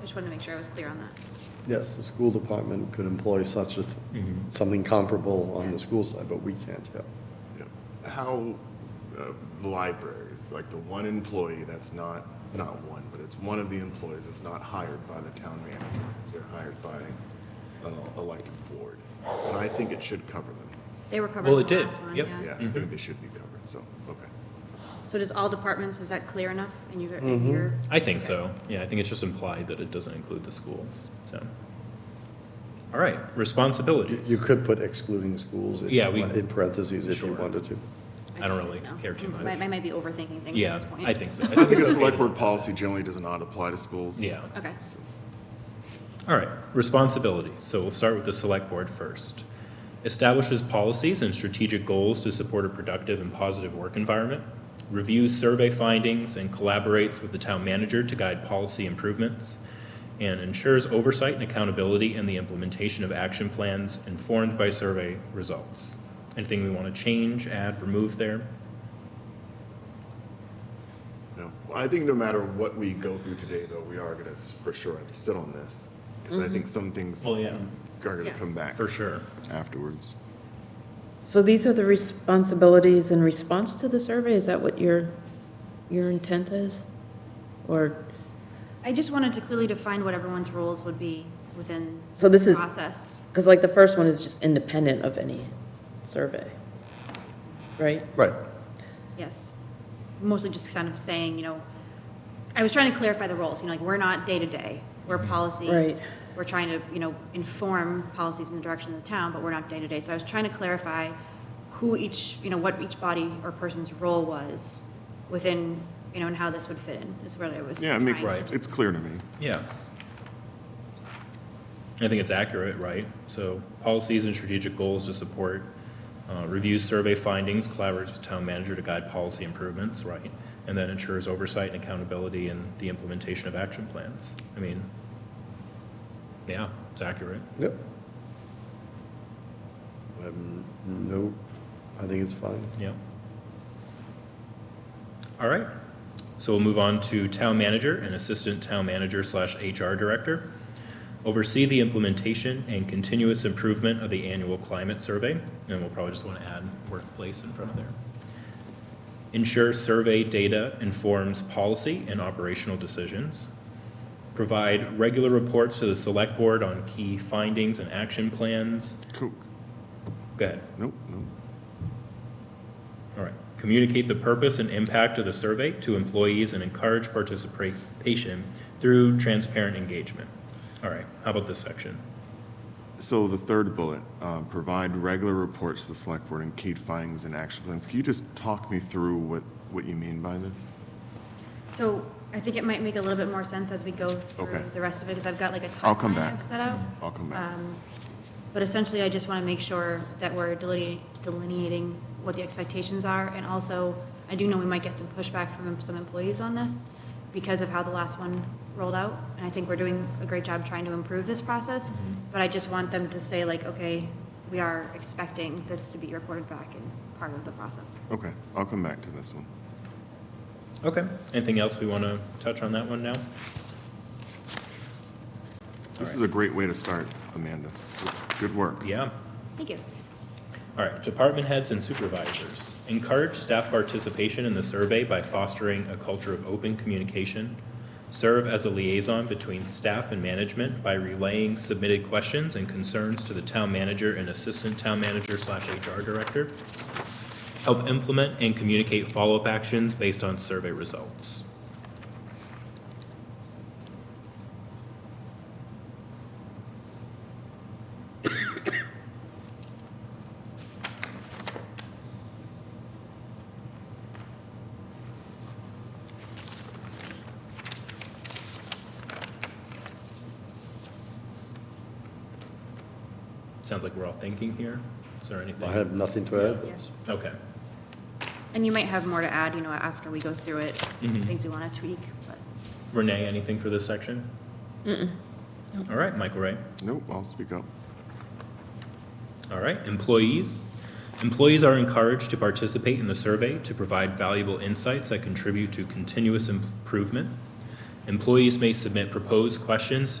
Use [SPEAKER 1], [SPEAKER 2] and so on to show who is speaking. [SPEAKER 1] just wanted to make sure I was clear on that.
[SPEAKER 2] Yes, the school department could employ such a, th-
[SPEAKER 3] Mhm.
[SPEAKER 2] something comparable on the school side, but we can't, yeah.
[SPEAKER 4] Yeah. How, uh, the libraries, like the one employee that's not, not one, but it's one of the employees that's not hired by the town manager. They're hired by an elected board. And I think it should cover them.
[SPEAKER 1] They were covered
[SPEAKER 3] Well,
[SPEAKER 1] in
[SPEAKER 3] it
[SPEAKER 1] the
[SPEAKER 3] did.
[SPEAKER 1] last one,
[SPEAKER 3] Yep.
[SPEAKER 4] Yeah,
[SPEAKER 1] yeah.
[SPEAKER 4] I
[SPEAKER 3] Mm-hmm.
[SPEAKER 4] think they should be covered, so, okay.
[SPEAKER 1] So does all departments, is that clear enough? And you,
[SPEAKER 5] Mm-hmm.
[SPEAKER 1] and you're,
[SPEAKER 3] I think so. Yeah, I think it's just implied that it doesn't include the schools, so. All right,
[SPEAKER 2] You-
[SPEAKER 3] responsibilities.
[SPEAKER 2] You could put excluding schools if you
[SPEAKER 3] Yeah, we-
[SPEAKER 2] want- in parentheses if you
[SPEAKER 3] Sure.
[SPEAKER 2] wanted to.
[SPEAKER 3] I don't
[SPEAKER 1] just
[SPEAKER 3] really
[SPEAKER 1] didn't know.
[SPEAKER 3] care too much.
[SPEAKER 1] I I Mm-hmm. might be overthinking things at
[SPEAKER 3] Yeah,
[SPEAKER 1] this point.
[SPEAKER 3] I think so.
[SPEAKER 4] I think the
[SPEAKER 3] it's
[SPEAKER 4] select
[SPEAKER 3] okay.
[SPEAKER 4] board policy generally does not apply to schools.
[SPEAKER 3] Yeah.
[SPEAKER 1] Okay,
[SPEAKER 4] So-
[SPEAKER 3] All right, responsibility. So we'll start with the select board first. Establishes policies and strategic goals to support a productive and positive work environment. Reviews survey findings and collaborates with the town manager to guide policy improvements. And ensures oversight and accountability in the implementation of action plans informed by survey results. Anything we want to change, add, remove there?
[SPEAKER 4] No, I think no matter what we go through today, though, we are gonna s- for sure have to sit on this, because I think some things
[SPEAKER 3] Well, yeah.
[SPEAKER 4] are gonna
[SPEAKER 1] Yeah.
[SPEAKER 4] come back
[SPEAKER 3] For sure.
[SPEAKER 4] afterwards.
[SPEAKER 5] So these are the responsibilities in response to the survey? Is that what your, your intent is? Or,
[SPEAKER 1] I just wanted to clearly define what everyone's roles would be within
[SPEAKER 5] So this
[SPEAKER 1] the
[SPEAKER 5] is-
[SPEAKER 1] process.
[SPEAKER 5] because like the first one is just independent of any survey, right?
[SPEAKER 2] Right.
[SPEAKER 1] Yes. Mostly just kind of saying, you know, I was trying to clarify the roles, you know, like, we're not day-to-day, we're policy.
[SPEAKER 5] Right.
[SPEAKER 1] We're trying to, you know, inform policies in the direction of the town, but we're not day-to-day. So I was trying to clarify who each, you know, what each body or person's role was within, you know, and how this would fit in, is what I was
[SPEAKER 4] Yeah, it makes,
[SPEAKER 1] trying to
[SPEAKER 3] Right.
[SPEAKER 4] it's clear to me.
[SPEAKER 3] Yeah. I think it's accurate, right? So policies and strategic goals to support, uh, reviews survey findings, collaborates with town manager to guide policy improvements, right? And then ensures oversight and accountability in the implementation of action plans. I mean, yeah, it's accurate.
[SPEAKER 2] Yep. Um, No, I think it's fine.
[SPEAKER 3] Yeah. All right, so we'll move on to town manager and assistant town manager slash HR director. Oversee the implementation and continuous improvement of the annual climate survey, and we'll probably just want to add workplace in front of there. Ensure survey data informs policy and operational decisions. Provide regular reports to the select board on key findings and action plans.
[SPEAKER 4] Cool.
[SPEAKER 3] Go ahead.
[SPEAKER 4] Nope, nope.
[SPEAKER 3] All right. Communicate the purpose and impact of the survey to employees and encourage participation through transparent engagement. All right, how about this section?
[SPEAKER 4] So the third bullet, um, provide regular reports to the select board and key findings and action plans. Can you just talk me through what, what you mean by this?
[SPEAKER 1] So I think it might make a little bit more sense as we go
[SPEAKER 4] Okay.
[SPEAKER 1] through the rest of it, because I've got like a
[SPEAKER 4] I'll come
[SPEAKER 1] timeline
[SPEAKER 4] back.
[SPEAKER 1] I've set out.
[SPEAKER 4] I'll come back.
[SPEAKER 1] Um, But essentially, I just want to make sure that we're deline- delineating what the expectations are. And also, I do know we might get some pushback from some employees on this because of how the last one rolled out. And I think we're doing a great job trying to improve this process. But I just want them to say like, okay, we are expecting this to be reported back and part of the process.
[SPEAKER 4] Okay, I'll come back to this one.
[SPEAKER 3] Okay, anything else we want to touch on that one now?
[SPEAKER 4] This is a great way to start, Amanda. Good work.
[SPEAKER 3] Yeah.
[SPEAKER 1] Thank you.
[SPEAKER 3] All right, department heads and supervisors. Encourage staff participation in the survey by fostering a culture of open communication. Serve as a liaison between staff and management by relaying submitted questions and concerns to the town manager and assistant town manager slash HR director. Help implement and communicate follow-up actions based on survey results. Sounds like we're all thinking here. Is there anything?
[SPEAKER 2] I have nothing to add.
[SPEAKER 1] Yes.
[SPEAKER 3] Okay,
[SPEAKER 1] And you might have more to add, you know, after we go through it,
[SPEAKER 3] Mhm.
[SPEAKER 1] things we want to tweak, but.
[SPEAKER 3] Renee, anything for this section? All right, Michael Ray.
[SPEAKER 4] Nope, I'll speak up.
[SPEAKER 3] All right, employees. Employees are encouraged to participate in the survey to provide valuable insights that contribute to continuous improvement. Employees may submit proposed questions